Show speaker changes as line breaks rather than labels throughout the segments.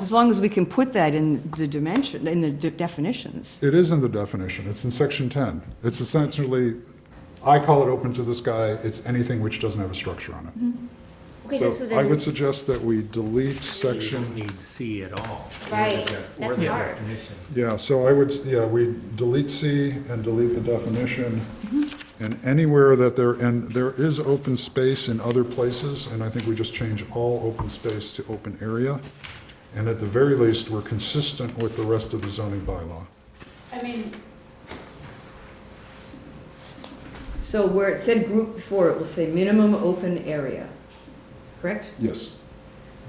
As long as we can put that in the dimension, in the de- definitions.
It is in the definition, it's in section 10. It's essentially, I call it open to the sky, it's anything which doesn't have a structure on it.
Mm-hmm. Okay, so
So
then
I would
it's-
suggest that we delete
You don't
section,
need C at all.
Right,
Or
that's
the
hard.
definition.
yeah, so I would, yeah, we delete C and delete the definition.
Mm-hmm.
And anywhere that there, and there is open space in other places, and I think we just change all open space to open area. And at the very least, we're consistent with the rest of the zoning bylaw.
I mean,
So where it said group before, it will say minimum open area, correct?
Yes.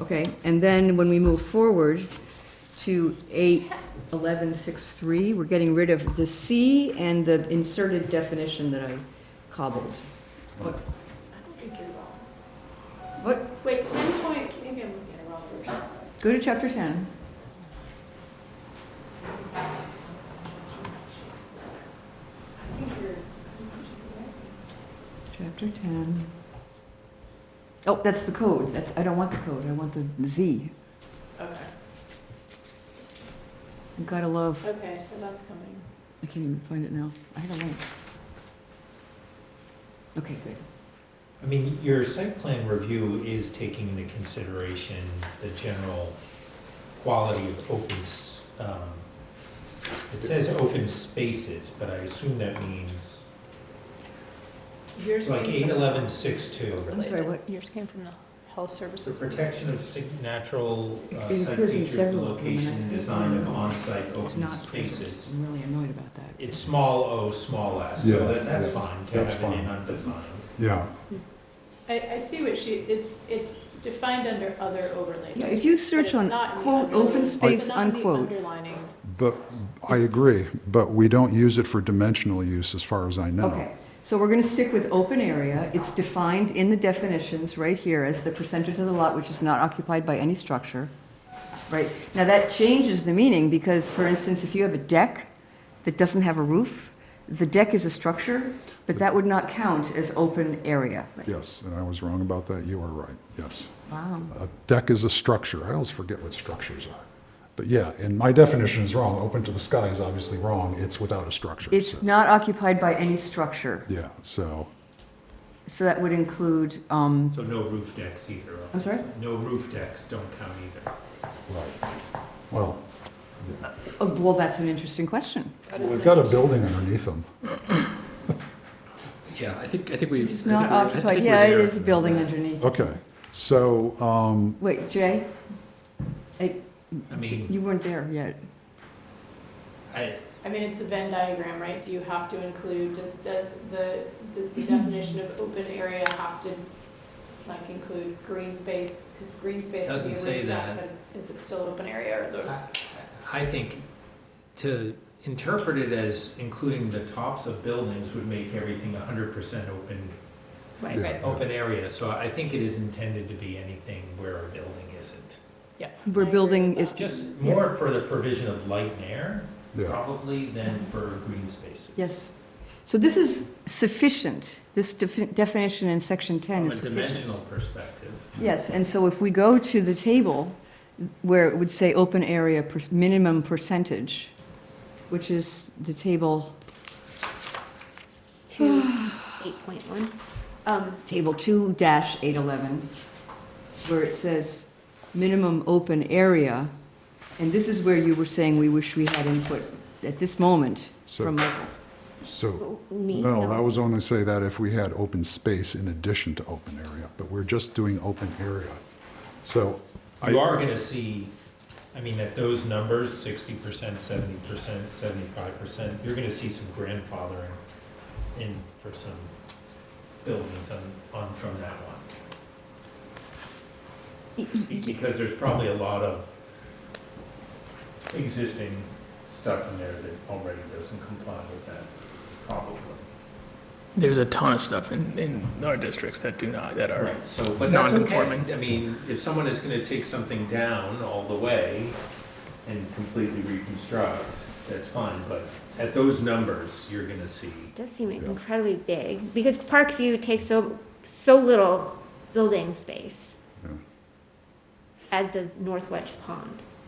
Okay, and then when we move forward to eight eleven six three, we're getting rid of the C and the inserted definition that I cobbled. What?
I don't think you're wrong.
What?
Wait, ten point, maybe I'm looking at the wrong version.
Go to chapter ten.
I think you're,
Chapter ten. Oh, that's the code. That's, I don't want the code. I want the Z.
okay,
You Gotta love,
okay, so that's coming.
I can't even find it now. I had a link. Okay, good.
I mean, your site plan review is taking into consideration the general quality of open, s- um, it says open spaces, but I assume that means,
Yours
it's like
came
eight
from-
eleven six two.
I'm sorry, what?
Yours came from the health
The
services.
protection of sig- natural uh,
It
site
occurs in
features,
several of them, and
location,
I
and
think-
design of on-site
It's
open
not present.
spaces.
I'm really annoyed about that.
It's small o, small s,
Yeah,
so that, that's
yeah,
fine to
that's
have it in
fine.
undefined.
Yeah,
I, I see what she, it's, it's defined under other overlays.
Yeah, if you
but
search
it's
on
not in the
quote,
underlying-
open
it's
space,
not in the
unquote.
underlining.
But, I agree, but we don't use it for dimensional use, as far as I know.
Okay, so we're gonna stick with open area. It's defined in the definitions right here as the percentage of the lot which is not occupied by any structure. Right, now that changes the meaning because, for instance, if you have a deck that doesn't have a roof, the deck is a structure, but that would not count as open area.
Yes, and I was wrong about that, you are right, yes.
Wow.
A deck is a structure, I always forget what structures are. But yeah, and my definition is wrong, open to the sky is obviously wrong, it's without a structure.
It's
so-
not occupied by any structure,
Yeah, so,
so that would include, um,
So no roof decks either.
I'm sorry?
No roof decks don't count either.
right, well,
oh, well, that's an interesting question.
they've got a building underneath them.
Yeah, I think, I think we.
Which is
I think
not
we're- I think
occupied,
we're
yeah, it
there.
is a building underneath.
Okay, so, um,
Wait, Jay? I-
I mean-
You weren't there yet.
I,
I mean, it's a Venn diagram, right? Do you have to include, does, does the, does the definition of open area have to, like, include green space? Because green space would
Doesn't
be a
say
roof deck,
that.
but is it still open area or those?
I- I think to interpret it as including the tops of buildings would make everything hundred percent open,
Right,
Yeah.
right.
open area. So I think it is intended to be anything where a building isn't.
yeah. I
We're
agree
building
with
is,
Just more for the provision of light and air,
yeah,
probably, than for green spaces.
yes. So this is sufficient, this defi- definition in section 10
From a
is
dimensional
sufficient.
perspective.
Yes, and so if we go to the table where it would say open area per- minimum percentage, which is the table,
Two, eight point one.
um, table 2-811, where it says minimum open area, and this is where you were saying we wish we had input at this moment
So-
from Michael.
so,
Me,
no, that was only say that if we had open space in addition to open area, but we're just doing open area. So, I.
You are gonna see, I mean, at those numbers, sixty percent, seventy percent, seventy-five percent, you're gonna see some grandfathering in for some buildings on, on from that one. Because there's probably a lot of existing stuff in there that already doesn't comply with that, probably.
there's a ton of stuff in, in our districts that do not, that are,
Right, so, but that's okay.
Non-conforming.
I mean, if someone is gonna take something down all the way and completely reconstruct, that's fine, but at those numbers, you're gonna see.
does seem incredibly big, because Parkview takes so, so little building space.
Yeah.
As does North Wedge Pond.